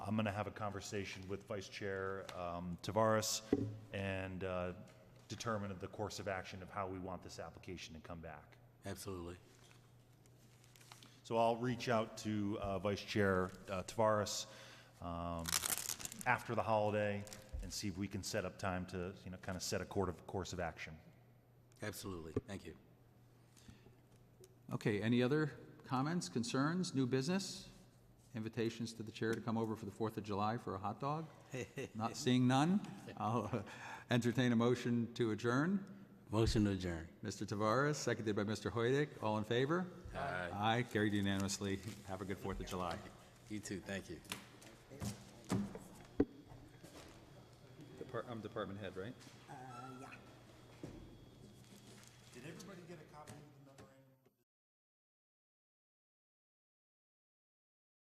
I'm going to have a conversation with Vice Chair um, Tavares and uh, determine the course of action of how we want this application to come back. Absolutely. So I'll reach out to uh, Vice Chair uh, Tavares um, after the holiday and see if we can set up time to, you know, kind of set a court of, course of action. Absolutely. Thank you. Okay, any other comments, concerns, new business? Invitations to the chair to come over for the Fourth of July for a hot dog? Not seeing none? I'll uh, entertain a motion to adjourn. Motion to adjourn. Mr. Tavares, seconded by Mr. Hoydic. All in favor? Aye. Aye, carried unanimously. Have a good Fourth of July. You too. Thank you. I'm department head, right? Uh, yeah.